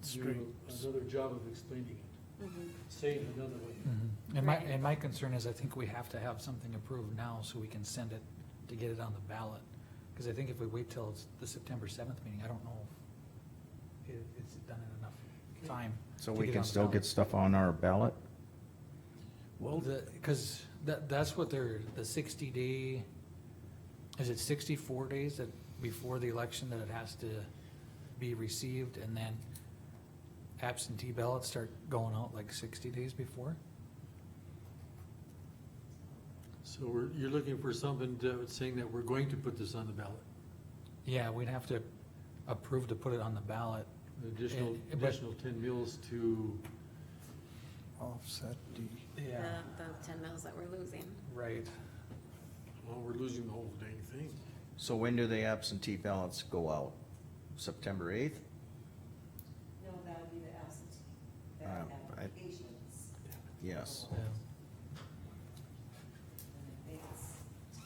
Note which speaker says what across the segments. Speaker 1: That's
Speaker 2: do
Speaker 1: great.
Speaker 2: Another job of explaining it,
Speaker 3: Mm-hmm.
Speaker 2: say it another way.
Speaker 1: Mhm. And my,
Speaker 3: Right.
Speaker 1: and my concern is I think we have to have something approved now so we can send it to get it on the ballot. Cause I think if we wait till it's the September seventh meeting, I don't know if it, it's done in enough time.
Speaker 4: So
Speaker 1: to
Speaker 4: we
Speaker 1: get it on
Speaker 4: can
Speaker 1: the
Speaker 4: still
Speaker 1: ballot.
Speaker 4: get stuff on our ballot?
Speaker 1: Well, the, cause that, that's what they're, the sixty day, is it sixty-four days that, before the election that it has to be received and then absentee ballots start going out like sixty days before?
Speaker 2: So we're, you're looking for something that was saying that we're going to put this on the ballot,
Speaker 1: Yeah, we'd have to approve to put it on the ballot.
Speaker 2: An additional,
Speaker 1: And- but-
Speaker 2: additional ten mills to,
Speaker 5: Offset D.
Speaker 3: The, the ten mills that we're losing.
Speaker 1: Right.
Speaker 2: well, we're losing the whole dang thing.
Speaker 4: So when do the absentee ballots go out? September eighth?
Speaker 6: No, that would be the absentee, the
Speaker 4: Uh, I-
Speaker 6: applications.
Speaker 4: Yes.
Speaker 1: Yeah.
Speaker 6: And I think it's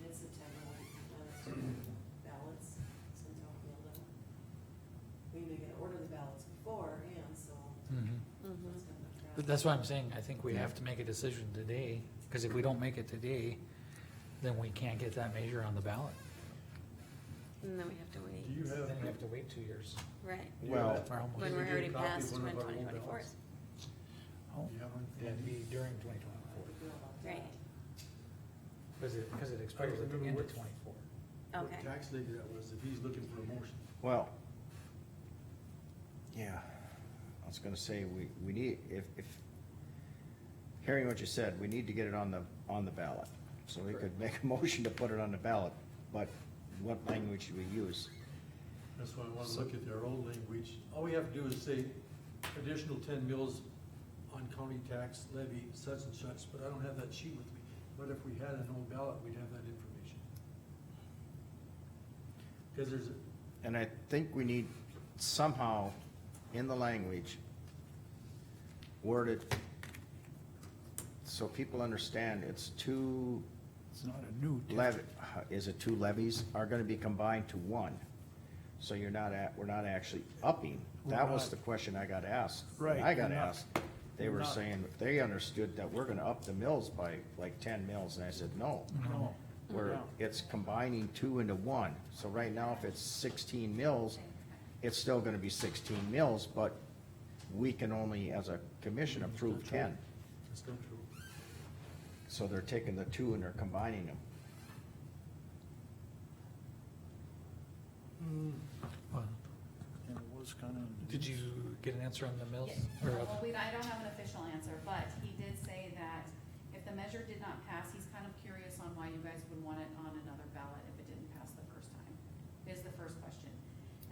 Speaker 6: mid-September, when the ballots, since I'll be able to, we may get to order the ballots beforehand, so
Speaker 1: Mhm.
Speaker 6: it's gonna look
Speaker 1: But
Speaker 6: crowded.
Speaker 1: That's why I'm saying, I think we have to make a decision today, because if we don't make it today, then we can't get that measure on the ballot.
Speaker 3: And then we have to wait.
Speaker 2: Do you have,
Speaker 1: Then we have to wait two years.
Speaker 3: Right,
Speaker 4: Well,
Speaker 1: Or almost.
Speaker 3: when we're
Speaker 2: get a
Speaker 3: already
Speaker 2: copy of
Speaker 3: past
Speaker 2: one
Speaker 3: when
Speaker 2: of our old
Speaker 3: twenty twenty-four.
Speaker 2: ballots?
Speaker 1: Oh,
Speaker 5: You have one?
Speaker 1: It'd be during twenty
Speaker 6: How
Speaker 1: twenty-four,
Speaker 6: do you feel about that?
Speaker 3: Right,
Speaker 1: because it, because it expires at the end of twenty-four.
Speaker 2: what
Speaker 3: okay.
Speaker 2: tax lady that was, if he's looking for a motion?
Speaker 4: well. Yeah, I was gonna say, we, we need, if, if, hearing what you said, we need to get it on the, on the ballot. So we could make a motion to put it on the ballot, but what language should we use?
Speaker 2: That's why I wanna look at their own language. All we have to do is say additional ten mills on county tax levy such and such, but I don't have that sheet with me. But if we had an old ballot, we'd have that information. Cause there's, a-
Speaker 4: And I think we need somehow in the language worded so people understand it's two
Speaker 5: It's not a new. district.
Speaker 4: levy, uh, is it two levies are gonna be combined to one? So you're not at, we're not actually upping. That was the question I got asked.
Speaker 5: Right,
Speaker 4: I got
Speaker 5: we're not.
Speaker 4: asked. They
Speaker 5: We're
Speaker 4: were
Speaker 5: not.
Speaker 4: saying, they understood that we're gonna up the mills by like ten mills, and I said, no.
Speaker 5: No.
Speaker 4: Where
Speaker 5: Yeah.
Speaker 4: it's combining two into one. So right now, if it's sixteen mills, it's still gonna be sixteen mills, but we can only, as a commission, approve ten.
Speaker 2: that's not true.
Speaker 4: So they're taking the two and they're combining them.
Speaker 5: And it was kinda.
Speaker 1: Did you get an answer on the mills?
Speaker 7: Yeah,
Speaker 1: Or
Speaker 7: Well, we, I don't have an official answer, but he did say that if the measure did not pass, he's kind of curious on why you guys would want it on another ballot if it didn't pass the first time, is the first question.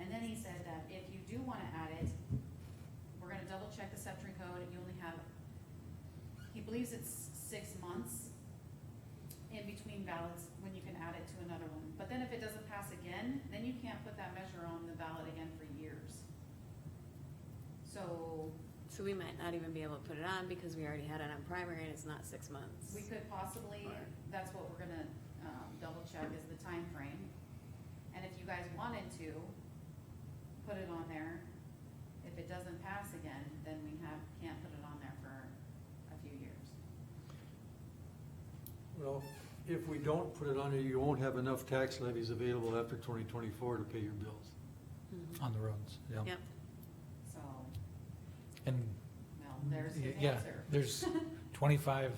Speaker 7: And then he said that if you do wanna add it, we're gonna double check the Septri code, you only have, he believes it's six months in between ballots when you can add it to another one. But then if it doesn't pass again, then you can't put that measure on the ballot again for years. So
Speaker 3: So we might not even be able to put it on because we already had it on primary and it's not six months.
Speaker 7: We could possibly, that's what we're gonna, um, double check is the time frame. And if you guys wanted to, put it on there. If it doesn't pass again, then we have, can't put it on there for a few years.
Speaker 2: Well, if we don't put it on there, you won't have enough tax levies available after twenty twenty-four to pay your bills.
Speaker 3: Mhm.
Speaker 1: On the roads, yeah.
Speaker 3: Yep,
Speaker 7: So,
Speaker 1: And,
Speaker 7: well, there's his
Speaker 1: yeah,
Speaker 7: answer.
Speaker 1: there's twenty-five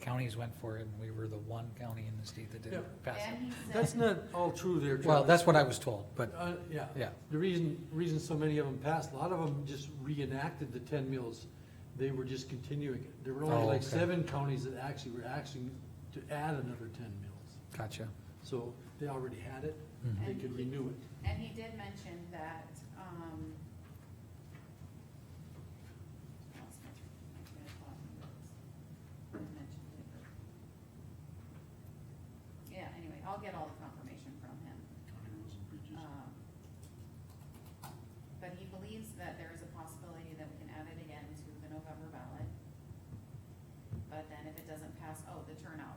Speaker 1: counties went for it, and we were the one county in the state that
Speaker 2: Yeah.
Speaker 1: didn't pass it.
Speaker 7: And he said.
Speaker 2: That's not all true there,
Speaker 1: Well,
Speaker 2: Travis.
Speaker 1: that's what I was told, but,
Speaker 2: Uh, yeah.
Speaker 1: yeah.
Speaker 2: The reason, reason so many of them passed, a lot of them just reenacted the ten mills. They were just continuing it. There were
Speaker 1: Oh,
Speaker 2: only like
Speaker 1: okay.
Speaker 2: seven counties that actually were acting to add another ten mills.
Speaker 1: Gotcha.
Speaker 2: So they already had it,
Speaker 1: Mhm.
Speaker 7: Mm-hmm.
Speaker 2: they could renew it.
Speaker 7: And he did mention that, um. I lost my train- my train of thought when it was- when I mentioned it, but- Yeah, anyway, I'll get all the confirmation from him. Um, But he believes that there is a possibility that we can add it again to the November ballot. But then if it doesn't pass, oh, the turnout um,